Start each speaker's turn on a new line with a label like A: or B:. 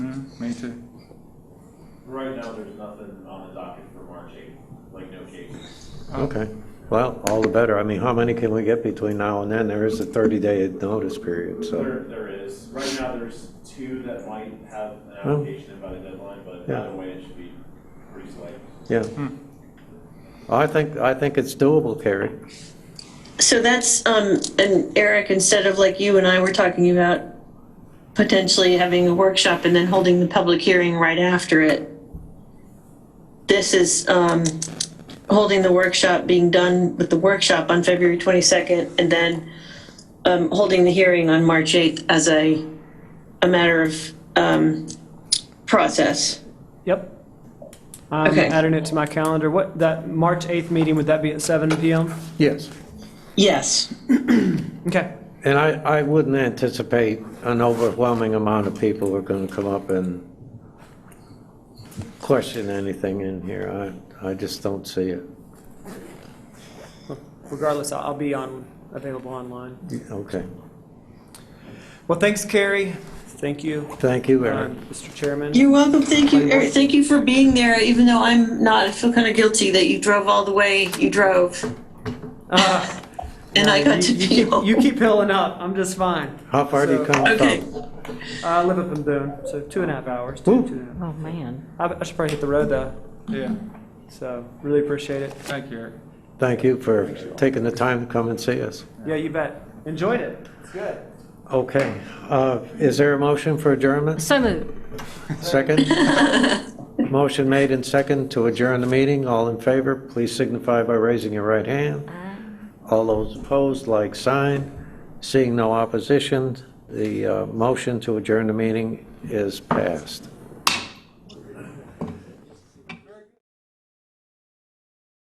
A: Mm-hmm. Me too.
B: Right now, there's nothing on the docket for March 8th, like no cases.
C: Okay, well, all the better. I mean, how many can we get between now and then? There is a 30-day notice period, so,
B: There, there is, right now, there's two that might have an
C: Oh.
B: application about a deadline, but
C: Yeah.
B: either way, it should be pretty slight.
C: yeah. I think, I think it's doable, Carrie.
D: So that's, um, and Eric, instead of like you and I were talking about potentially having a workshop and then holding the public hearing right after it, this is, um, holding the workshop, being done with the workshop on February 22nd, and then, um, holding the hearing on March 8th as a, a matter of, um, process.
E: Yep. I'm
D: Okay.
E: adding it to my calendar. What, that March 8th meeting, would that be at 7 PM?
C: Yes.
D: Yes.
E: Okay.
C: And I, I wouldn't anticipate an overwhelming amount of people who are going to come up and question anything in here. I, I just don't see it.
E: Regardless, I'll I'll be on, available online.
C: Okay,
E: Well, thanks, Carrie. Thank you,
C: thank you, Eric.
E: um, Mr. Chairman.
D: You're welcome. Thank you, Eric. Thank you for being there, even though I'm not, I feel kind of guilty that you drove all the way you drove.
E: Uh,
D: And I got to
E: you- you keep-
D: be home.
E: You keep hilling up. I'm just fine.
C: How far do you
E: So-
C: come
D: Okay.
C: from?
E: I live up in Boone, so two and a half hours. Two,
C: Ooh.
E: two and a half.
F: Oh, man.
E: I I should probably hit the road though,
A: Yeah,
E: so really appreciate it.
A: thank you, Eric.
C: Thank you for taking the time to come and see us.
E: Yeah, you bet. Enjoyed it. It's good.
C: Okay, uh, is there a motion for adjournment?
F: So moved.
C: Second? Motion made and second to adjourn the meeting. All in favor, please signify by raising your right hand. All those opposed, like sign. Seeing no opposition, the uh, motion to adjourn the meeting is passed.